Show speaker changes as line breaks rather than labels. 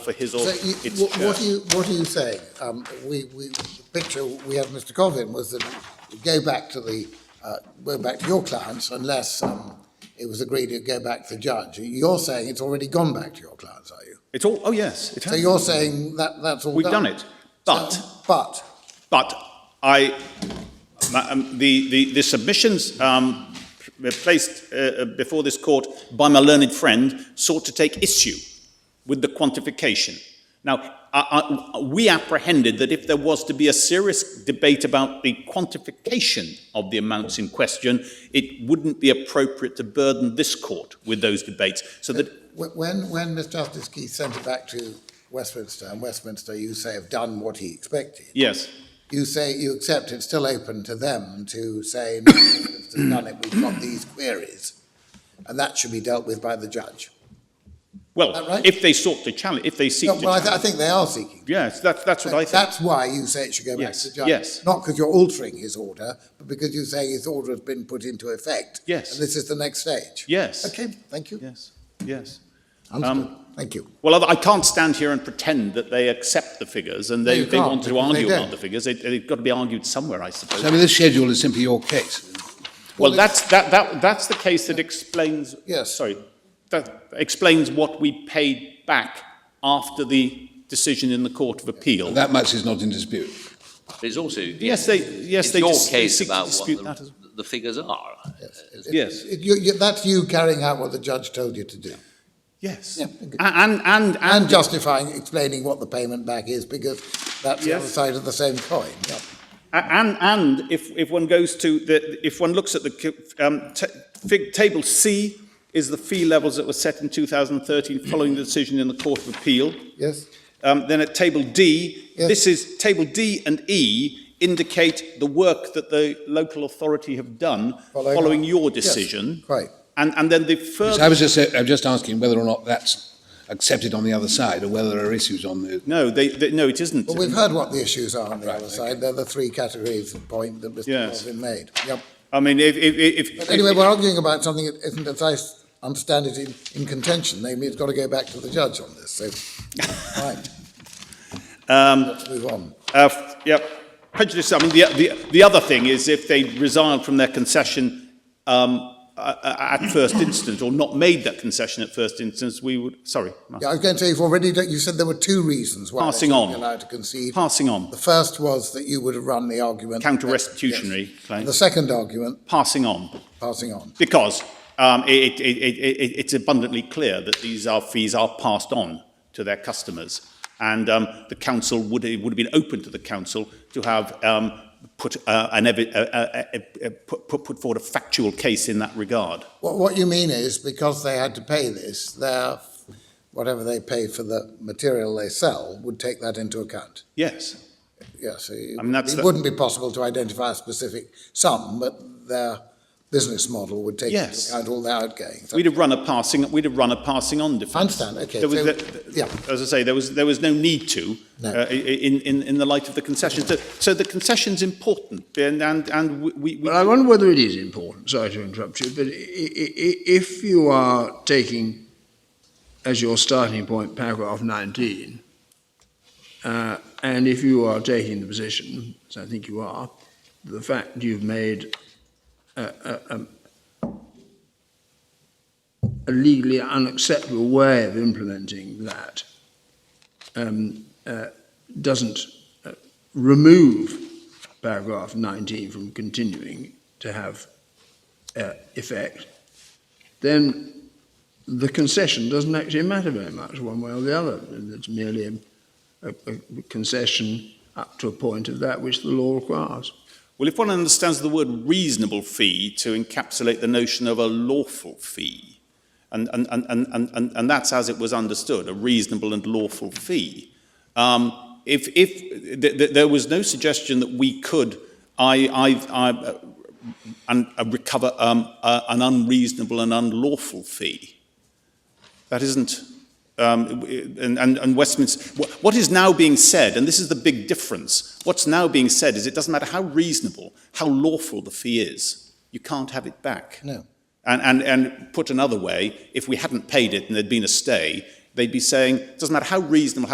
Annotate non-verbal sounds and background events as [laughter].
for his
So
or
you,
its
what,
chair.
what are you what are you saying? Um, we, we the picture we had Mr. Covin was that we go back to the uh, go back to your clients unless um, it was agreed to go back to the judge. You're saying it's already gone back to your clients, are you?
It's all, oh yes, it
So
has.
you're saying that that's all
We've
done.
done it. But,
but
but I, ma- um, the, the, the submissions um, p- placed uh, uh, before this court by my learned friend sought to take issue with the quantification. Now, I, I, we apprehended that if there was to be a serious debate about the quantification of the amounts in question, it wouldn't be appropriate to burden this court with those debates. So that
wh- when when Mr. Justice Keith sent it back to Westminster and Westminster, you say have done what he expected.
yes,
you say you accept it's still open to them to say, no, it's done it, we've got these queries, and that should be dealt with by the judge.
well,
that right?
if they sought to challenge, if they seek
No,
to
Well, I, th- I
challenge-
think they are seeking.
yes, that's that's what I think.
That's why you say it should go back
Yes,
to the judge.
yes.
Not because you're altering his order, but because you're saying his order has been put into effect.
Yes.
And this is the next stage.
Yes.
Okay, thank you.
Yes, yes.
Understood,
Um,
thank you.
Well, I I can't stand here and pretend that they accept the figures and they,
No, you
they
can't,
want to
because they
argue about
don't.
the figures. It, it's got to be argued somewhere, I suppose.
So, I mean, this schedule is simply your case.
well,
well,
that's that, that that's the case that explains.
Yes.
Sorry, that explains what we paid back after the decision in the Court of Appeal.
That much is not in dispute.
There's also
yes, they yes
it's
they
your
dis- they
case
seek to
about what
dispute
the,
that as well.
the figures are.
Yes.
It- you- you- That's you carrying out what the judge told you to do.
Yes.
Yeah, okay.
A- and and and,
And justifying, explaining what the payment back is, because that's the
Yes.
other side of the same coin, yeah.
A- And, and if, if one goes to the, if one looks at the, c- um, t- fig, table C is the fee levels that were set in 2013 following the decision in the Court of Appeal.
Yes?
Um, then at table D,
Yes.
this is, table D and E indicate the work that the local authority have done
Following
following
up.
your
Yes,
decision.
quite.
And, and then the
So I
further,
was just, I'm just asking whether or not that's accepted on the other side, or whether there are issues on the.
no, they, they, no, it isn't.
Well, we've heard what the issues are on the
Right,
other
okay.
side. They're the three categories of point that Mr.
Yes.
Corbyn made. Yep.
I mean, if, if, if.
But anyway, we're arguing about something that isn't, as I s- understand it, in, in contention. Namely, it's got to go back to the judge on this.
[laughs]
So, right. Um, Let's move on.
Uh, f- yeah, prejudice. I mean, the, the, the other thing is if they resiled from their concession um, uh, at first instance or not made that concession at first instance, we would, sorry, no.
Yeah, I was going to say, you've already done, you said there were two reasons why
Passing
they should be
on.
allowed to concede.
passing on,
the first was that you would have run the argument.
Counter-restitutionary
Yes.
claim.
The second argument,
passing on,
passing on.
because um, it, it, it, it, it's abundantly clear that these are fees are passed on to their customers. And um, the council would, it would have been open to the council to have um, put, uh, an evi- uh, uh, uh, uh, put, put put forward a factual case in that regard.
What, what you mean is because they had to pay this, their, whatever they pay for the material they sell would take that into account.
Yes.
Yes, it,
I mean, that's
it
the-
wouldn't be possible to identify a specific sum, but their business model would take
Yes.
into account all their outgoings.
We'd have run a passing. We'd have run a passing on defence.
I understand, okay,
There was,
so-
there-
yeah.
As I say, there was there was no need to
No.
uh, i- in, in in the light of the concession. So, so the concession's important, and and and we. we
But I wonder whether it is important, sorry to interrupt you, but i- i- i- if you are taking as your starting point paragraph 19, uh, and if you are taking the position, as I think you are, the fact you've made a, a, a- a legally unacceptable way of implementing that um, uh, doesn't uh, remove paragraph 19 from continuing to have uh, effect, then the concession doesn't actually matter very much one way or the other. It's merely a, a, a concession up to a point of that which the law requires.
Well, if one understands the word reasonable fee to encapsulate the notion of a lawful fee, and, and, and, and, and, and, and that's as it was understood, a reasonable and lawful fee. Um, if if th- th- there was no suggestion that we could, I, I, I uh, and, uh, recover um, uh, an unreasonable and unlawful fee. That isn't, um, and, and, and Westminster, what, what is now being said, and this is the big difference, what's now being said is it doesn't matter how reasonable, how lawful the fee is, you can't have it back.
No.
And, and, and put another way, if we hadn't paid it and there'd been a stay, they'd be saying, doesn't matter how reasonable,